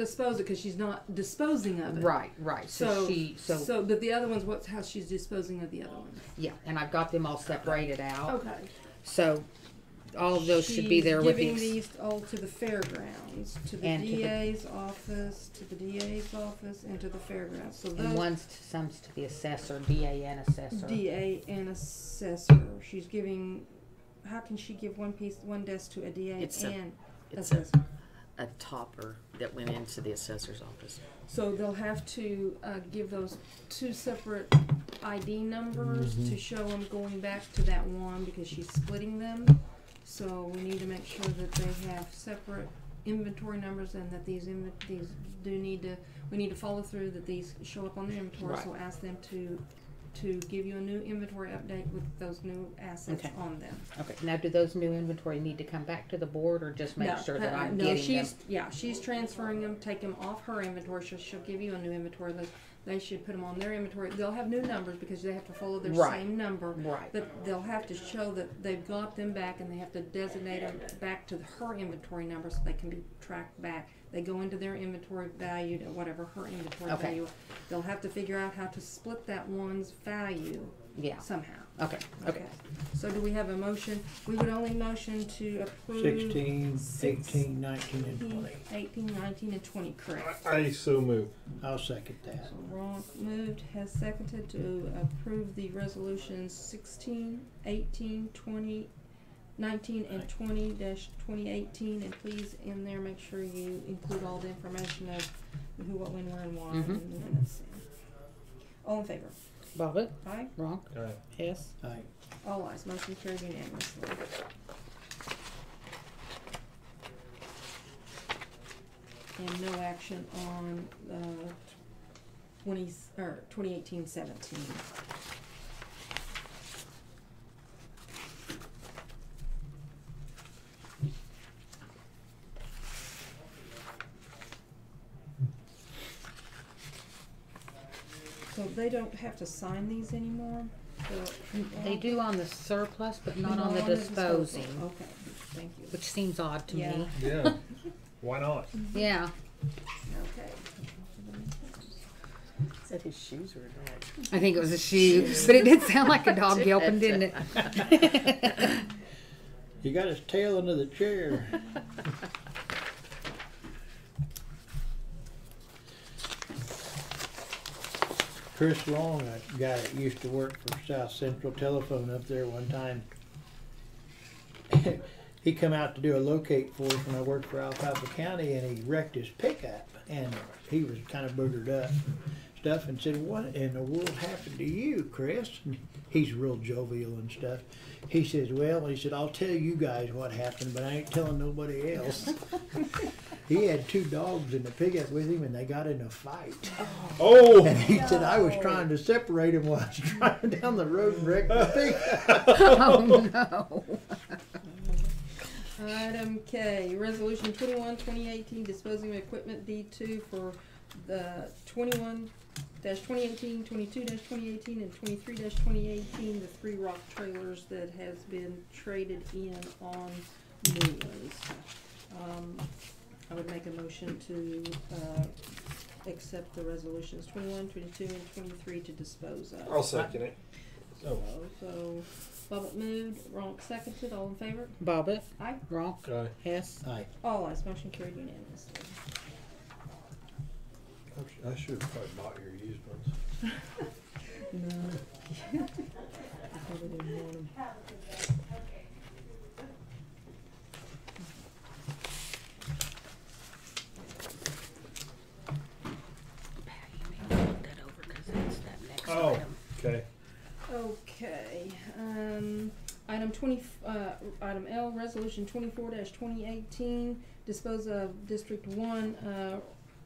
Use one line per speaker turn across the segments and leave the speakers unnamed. dispose it because she's not disposing of it.
Right, right. So,
So
she, so,
so, but the other one's what's how she's disposing of the other one.
yeah, and I've got them all separated out.
Okay.
So Oh, all of those should be there with
Giving
ex-
these all to the fairgrounds, to the
And to the-
DA's office, to the DA's office, and to the fairgrounds. So
and
those
one's to, some's to the assessor, DA and assessor.
DA and assessor. She's giving. How can she give one piece, one desk to a DA
It's a-
and
It's a,
assessor?
a topper that went into the assessor's office.
So they'll have to uh, give those two separate ID numbers to show them going back to that one because she's splitting them. So we need to make sure that they have separate inventory numbers and that these inven- these do need to we need to follow through that these show up on the inventory. So ask them to to give you a new inventory update with those new assets
Okay.
on them.
Okay. Now, do those new inventory need to come back to the board, or just make
No,
sure that
uh-uh,
I'm
no,
getting
she's,
them?
Yeah, she's transferring them, take them off her inventory, she'll, she'll give you a new inventory list. They should put them on their inventory, they'll have new numbers because they have to follow their
Right.
same number.
Right.
But they'll have to show that they've got them back and they have to designate them back to her inventory number so they can be tracked back. They go into their inventory valued at whatever her inventory
Okay.
value. They'll have to figure out how to split that one's value
Yeah.
somehow.
Okay. Okay.
So do we have a motion? We would only motion to approve.
16,
Six.
18, 19, and
18,
20.
18, 19, and 20, correct.
I so move.
I'll second that.
Ron moved, has seconded to approve the resolutions 16, 18, 20, 19, and 20 2018. And please, in there, make sure you include all the information of who, what, when, where, and why.
Mhm.
in the minutes. All in favor?
Bobbit,
Aye.
wrong.
All right.
Yes.
Aye.
All ayes. Oh, Motion carried unanimously. And no action on the twenty, or twenty eighteen seventeen. So they don't have to sign these anymore? The-
They do on the surplus, but not on the
Not disposal.
disposing,
Okay, thank you.
which seems odd to
Yeah.
me. Mm-hmm.
Yeah. Why not?
Yeah.
Okay.
Said his shoes were dog.
I think it was a shoe, but it did sound like a dog yelping, didn't it?
You got his tail under the chair. Chris Long, a guy that used to work for South Central Telephone up there one time. he come out to do a locate for us when I worked for Alfalfa County and he wrecked his pickup and he was kind of boogered up and stuff and said, what in the world happened to you, Chris? And he's real jovial and stuff. He says, well, he said, I'll tell you guys what happened, but I ain't telling nobody else. he had two dogs in the pickup with him and they got in a fight. And
Oh,
he said, I was trying to separate him while I was driving down the road and wrecked the pickup.
oh no.
Item K, resolution 21 2018 disposing of equipment D two for the 21 2018 22 twenty eighteen, and twenty-three twenty eighteen, the three rock trailers that has been traded in on new ones. Um, I would make a motion to, uh, accept the resolutions 21, 22, and twenty-three to dispose of.
I'll second it.
So, so, Bobbit moved, Ronk seconded, all in favor?
Bobbit,
Aye.
wrong.
Okay.
Yes.
Aye.
All ayes, motion carried unanimously.
I should have probably bought your used ones.
No.
Oh, okay.
Okay, um, item twenty, uh, item L, resolution twenty-four twenty eighteen, dispose of District One, uh,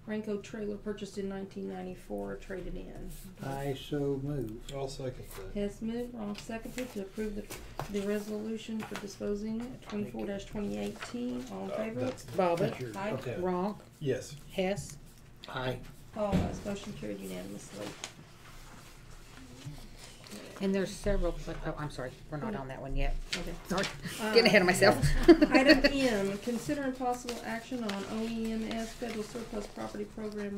Ranco trailer purchased in nineteen ninety-four, traded in.
I so move.
I'll second that.
Hess moved, Ronk seconded to approve the, the resolution for disposing twenty-four twenty eighteen, all in
Uh,
favor?
that's-
Bobbit,
That's your-
Aye.
okay.
wrong.
Yes.
Hess.
Aye.
All ayes, motion carried unanimously.
And there's several, but, oh, Uh, I'm sorry, we're not on that one yet.
Okay.
Sorry, getting ahead of myself.
E Item M, consider and possible action on OEMS Federal Surplus Property Program